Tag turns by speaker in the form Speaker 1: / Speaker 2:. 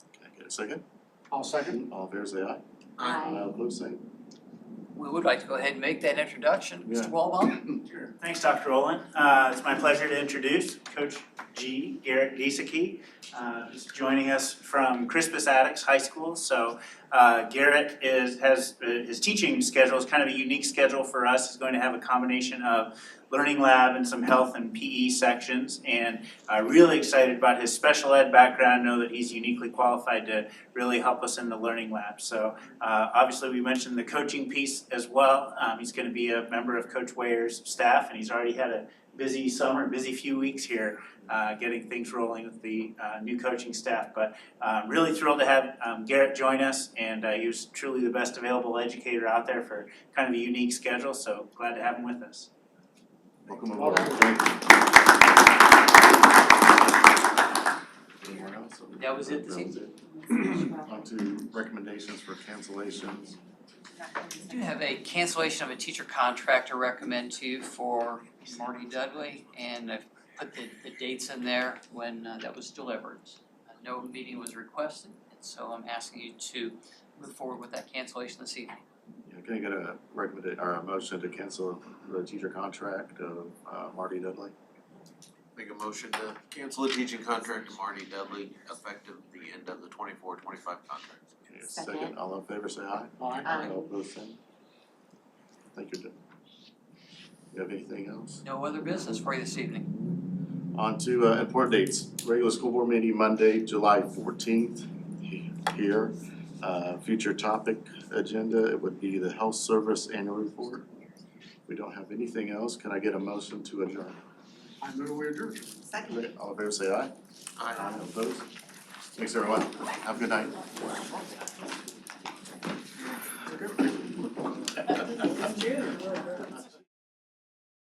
Speaker 1: a second?
Speaker 2: I'll second.
Speaker 1: All in favor say aye.
Speaker 3: Aye.
Speaker 1: All opposed say.
Speaker 4: We would like to go ahead and make that introduction,
Speaker 1: Yeah.
Speaker 4: Mr. Walbaum.
Speaker 5: Thanks, Dr. Rowland. Uh, it's my pleasure to introduce Coach G, Garrett Giesecke. Uh, he's joining us from Crispus Attucks High School. So uh, Garrett is, has, uh, his teaching schedule is kind of a unique schedule for us. He's going to have a combination of learning lab and some health and PE sections. And uh, really excited about his special ed background, know that he's uniquely qualified to really help us in the learning lab. So uh, obviously, we mentioned the coaching piece as well. Um, he's gonna be a member of Coach Ware's staff, and he's already had a busy summer, busy few weeks here, uh, getting things rolling with the, uh, new coaching staff. But, uh, really thrilled to have, um, Garrett join us, and, uh, he was truly the best available educator out there for kind of a unique schedule, so glad to have him with us.
Speaker 1: Welcome
Speaker 2: All
Speaker 1: aboard.
Speaker 2: right.
Speaker 1: Thank you. Anyone else?
Speaker 4: That was it this
Speaker 1: That was it. On to recommendations for cancellations.
Speaker 4: We do have a cancellation of a teacher contract to recommend to you for Marty Dudley, and I've put the, the dates in there when uh, that was delivered. Uh, No meeting was requested, and so I'm asking you to move forward with that cancellation this evening.
Speaker 1: Yeah, Can I get a recommendation or a motion to cancel the teacher contract of uh, Marty Dudley?
Speaker 6: Make a motion to cancel the teaching contract to Marty Dudley effective the end of the 24-25 contract.
Speaker 1: Can I get a
Speaker 3: Second.
Speaker 1: Second, all in favor say aye.
Speaker 2: Aye.
Speaker 3: Aye.
Speaker 1: All opposed say. Thank you, Dudley. You have anything else?
Speaker 4: No other business for you this evening.
Speaker 1: On to uh, important dates, regular school board meeting Monday, July fourteenth here. Uh, Future topic agenda, it would be the health service annual report. We don't have anything else, can I get a motion to adjourn?
Speaker 2: I move we adjourn.
Speaker 1: All in favor say aye. Aye. Opposed? Thanks everyone, have a good night.
Speaker 3: That's true.